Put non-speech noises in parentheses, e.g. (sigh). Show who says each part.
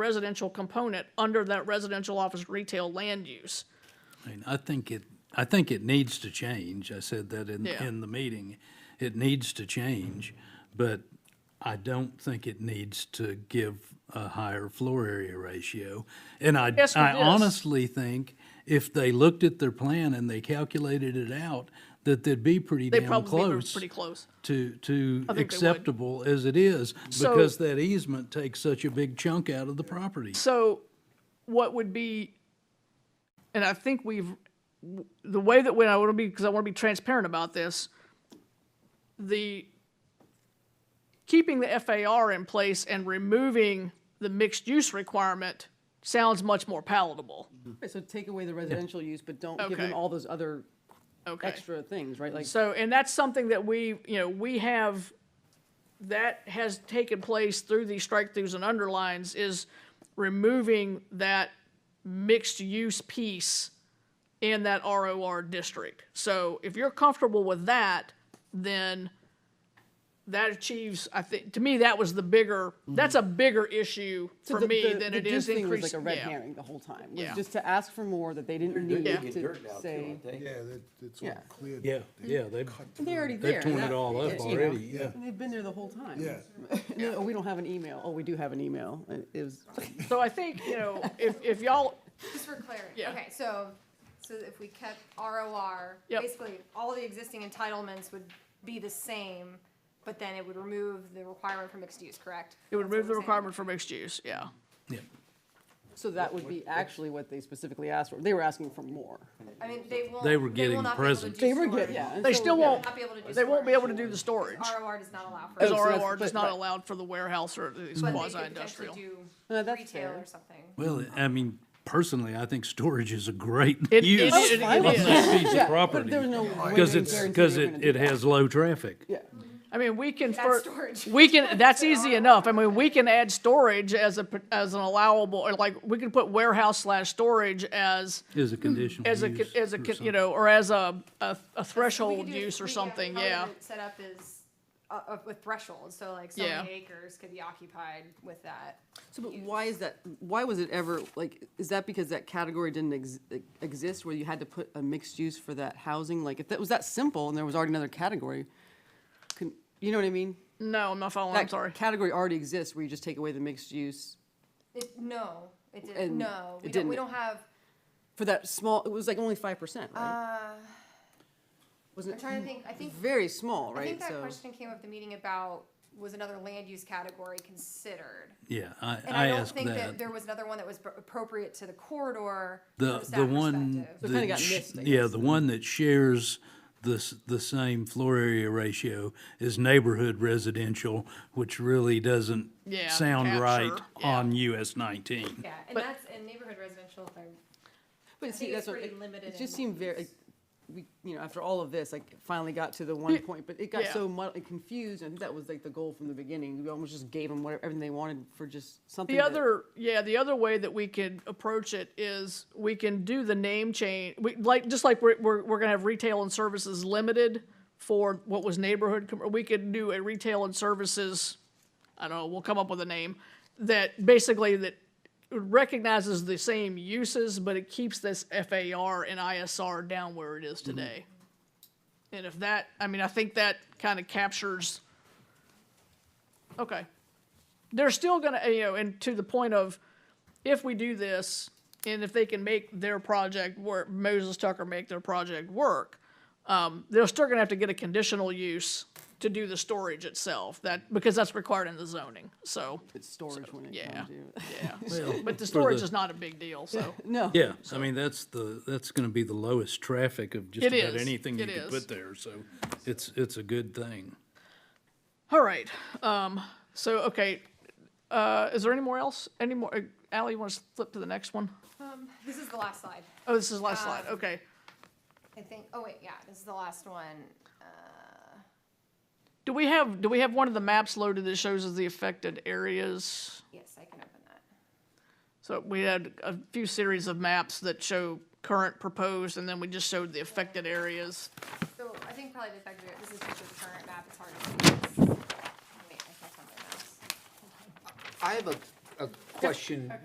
Speaker 1: residential component under that residential office retail land use.
Speaker 2: I mean, I think it, I think it needs to change. I said that in,
Speaker 1: Yeah.
Speaker 2: in the meeting. It needs to change, but I don't think it needs to give a higher floor area ratio. And I,
Speaker 1: Yes, with
Speaker 2: I
Speaker 1: this.
Speaker 2: honestly think if they looked at their plan and they calculated it out, that they'd be pretty
Speaker 1: They
Speaker 2: damn
Speaker 1: probably were
Speaker 2: close
Speaker 1: pretty close.
Speaker 2: to, to
Speaker 1: would.
Speaker 2: acceptable as it is,
Speaker 1: So-
Speaker 2: because that easement takes such a big chunk out of the property.
Speaker 1: So what would be, and I think we've, the way that when I want to be, because I want to be transparent about this, the, keeping the FAR in place and removing the mixed use requirement sounds much more palatable.
Speaker 3: Right, So take away the residential use, but don't give
Speaker 1: Okay.
Speaker 3: them all those other
Speaker 1: Okay.
Speaker 3: extra things, right? Like,
Speaker 1: So, and that's something that we, you know, we have, that has taken place through these strike-throughs and underlines, is removing that mixed-use piece in that ROR district. So if you're comfortable with that, then that achieves, I think, to me, that was the bigger, that's a bigger issue
Speaker 3: so
Speaker 1: for
Speaker 3: the-
Speaker 1: me
Speaker 3: the-
Speaker 1: than
Speaker 3: the
Speaker 1: it is
Speaker 3: Duke thing was
Speaker 1: increasing.
Speaker 3: like a red
Speaker 1: yeah.
Speaker 3: herring the whole time, was
Speaker 1: Yeah.
Speaker 3: just to ask for more that they didn't need
Speaker 1: digging
Speaker 3: to say.
Speaker 4: Yeah, that, it's all
Speaker 3: Yeah.
Speaker 4: cleared.
Speaker 2: Yeah, yeah, they've,
Speaker 3: And They're already there.
Speaker 2: they've torn it
Speaker 3: that-
Speaker 2: all
Speaker 3: you
Speaker 2: up
Speaker 3: know,
Speaker 2: already, yeah.
Speaker 3: And they've been there the whole time.
Speaker 4: Yeah.
Speaker 3: And then, Oh, we don't have an email. Oh, we do have an email. It- It was, (laughs)
Speaker 1: So I think, you know, if, if y'all,
Speaker 5: Just for clarity,
Speaker 1: Yeah.
Speaker 5: okay, so, so if we kept ROR,
Speaker 1: Yep.
Speaker 5: basically, all the existing entitlements would be the same, but then it would remove the requirement for mixed use, correct?
Speaker 1: it would
Speaker 5: That's what
Speaker 1: remove the
Speaker 5: we're saying.
Speaker 1: requirement for mixed use, yeah.
Speaker 3: so that would be actually what they specifically asked for. They were asking for more.
Speaker 5: I mean, they will.
Speaker 2: They were
Speaker 5: will
Speaker 2: getting
Speaker 5: not be able to
Speaker 2: presents.
Speaker 5: do
Speaker 3: They were
Speaker 5: storage.
Speaker 3: getting, yeah. and
Speaker 1: They
Speaker 3: so-
Speaker 1: still
Speaker 3: yeah.
Speaker 1: won't,
Speaker 5: Not be able to do
Speaker 1: they won't be able to do
Speaker 5: storage.
Speaker 1: the storage.
Speaker 5: ROR does not allow for.
Speaker 3: Oh,
Speaker 1: Because
Speaker 3: so that's-
Speaker 1: ROR does
Speaker 3: but-
Speaker 1: not
Speaker 3: right.
Speaker 1: allowed for the warehouse or these
Speaker 5: But they
Speaker 1: quasi
Speaker 5: could potentially
Speaker 1: industrial.
Speaker 3: No,
Speaker 5: do
Speaker 3: that's
Speaker 5: retail
Speaker 3: fair.
Speaker 5: or something.
Speaker 2: Well, I mean, personally, I think storage is a great
Speaker 1: It- it-
Speaker 2: use
Speaker 1: it- it
Speaker 2: of
Speaker 1: is.
Speaker 2: that piece
Speaker 3: Yeah,
Speaker 2: of
Speaker 3: but
Speaker 2: property.
Speaker 3: there's no way
Speaker 2: Because
Speaker 3: they
Speaker 2: it's,
Speaker 3: guarantee
Speaker 2: because
Speaker 3: they're
Speaker 2: it,
Speaker 3: gonna do
Speaker 2: it
Speaker 3: that.
Speaker 2: has low traffic.
Speaker 3: Yeah.
Speaker 1: I mean, we can,
Speaker 5: Add
Speaker 1: for-
Speaker 5: storage.
Speaker 1: we
Speaker 5: (laughs)
Speaker 1: can, that's easy enough. I mean, we can add storage as a, as an allowable, or like, we can put warehouse slash storage as,
Speaker 2: Is a conditional
Speaker 1: as a,
Speaker 2: use
Speaker 1: con- as a,
Speaker 2: or
Speaker 1: con- you
Speaker 2: something.
Speaker 1: know, or as a, a a
Speaker 5: We could
Speaker 1: threshold
Speaker 5: do-
Speaker 1: use or
Speaker 5: we- yeah,
Speaker 1: something,
Speaker 5: probably
Speaker 1: yeah.
Speaker 5: the Setup is, uh, uh, with thresholds, so like, so
Speaker 1: Yeah.
Speaker 5: many acres could be occupied with that.
Speaker 3: So, but why is that, why was it ever, like, is that because that category didn't ex- exist where you had to put a mixed use for that housing? Like, if that was that simple and there was already another category, couldn't, you know what I mean?
Speaker 1: No, I'm not following, Oh, I'm
Speaker 3: That
Speaker 1: sorry.
Speaker 3: Category already exists where you just take away the mixed use
Speaker 5: It, no, it didn't,
Speaker 3: And
Speaker 5: no, we
Speaker 3: it
Speaker 5: don't, we
Speaker 3: didn't.
Speaker 5: don't have,
Speaker 3: for that small, it was like only five percent, right?
Speaker 5: Uh, I'm
Speaker 3: Wasn't
Speaker 5: trying to
Speaker 3: it
Speaker 5: think, I think.
Speaker 3: very small,
Speaker 5: I
Speaker 3: right?
Speaker 5: think that
Speaker 3: So,
Speaker 5: question came up at the meeting about, was another land use category considered?
Speaker 2: Yeah, I,
Speaker 5: And
Speaker 2: I
Speaker 5: I don't
Speaker 2: asked
Speaker 5: think that
Speaker 2: that.
Speaker 5: there was another one that was pr- appropriate to the corridor
Speaker 2: The,
Speaker 5: from
Speaker 2: the
Speaker 5: staff
Speaker 2: one
Speaker 5: perspective.
Speaker 3: kinda
Speaker 2: that,
Speaker 3: got
Speaker 2: sh-
Speaker 3: missed, I
Speaker 2: yeah,
Speaker 3: guess.
Speaker 2: the one that shares the, s- the same floor area ratio is neighborhood residential, which really doesn't
Speaker 1: Yeah,
Speaker 2: sound right
Speaker 1: capture, yeah.
Speaker 2: on US nineteen.
Speaker 5: Yeah, and that's, and neighborhood residential, if I
Speaker 3: but see,
Speaker 5: think it's
Speaker 3: that's what,
Speaker 5: pretty
Speaker 3: it-
Speaker 5: limited
Speaker 3: it
Speaker 5: in
Speaker 3: just
Speaker 5: what
Speaker 3: seemed very, like, we, you know, after all of this, like, finally got to the one point, but it got
Speaker 1: Yeah.
Speaker 3: so muddled and confused. I think that was like the goal from the beginning. We almost just gave them whatever, everything they wanted for just something.
Speaker 1: The
Speaker 3: that-
Speaker 1: other, yeah, the other way that we could approach it is we can do the name change. We like just like we're we're, we're gonna have retail and services limited for what was neighborhood. com- We could do a retail and services. I don't know. We'll come up with a name that basically that recognizes the same uses, but it keeps this FAR and ISR down where it
Speaker 3: Mm-hmm.
Speaker 1: is today. And if that, I mean, I think that kind of captures. Okay they're still going to, you know, and to the point of if we do this and if they can make their project work, Moses Tucker make their project work, um, they're still going to have to get a conditional use to do the storage itself that because that's required in the zoning. So,
Speaker 3: It's storage when it
Speaker 1: yeah.
Speaker 3: comes to.
Speaker 1: yeah. but the storage is not a big deal. So,
Speaker 3: No.
Speaker 2: Yeah, I mean, that's the, that's gonna be the lowest traffic of just
Speaker 1: It
Speaker 2: about
Speaker 1: is,
Speaker 2: anything you
Speaker 1: it
Speaker 2: could
Speaker 1: is.
Speaker 2: put there, so it's, it's a good thing.
Speaker 1: all right. Um, so, okay. Uh, is there any more else? Any more? Uh, Allie, you want to flip to the next one?
Speaker 5: (laughs) this is the last slide,
Speaker 1: Oh, this is the last slide. Okay.
Speaker 5: I think, oh wait, yeah, this is the last one.
Speaker 1: Do we have do we have one of the maps loaded that shows us the affected areas?
Speaker 5: Yes, I can open that.
Speaker 1: So we had a few series of maps that show current proposed, and then we just showed the affected areas.
Speaker 5: So I think probably the fact that this is just the current map, it's hard to see. this. Wait, I can't find my mouse.
Speaker 6: I have a,
Speaker 4: a question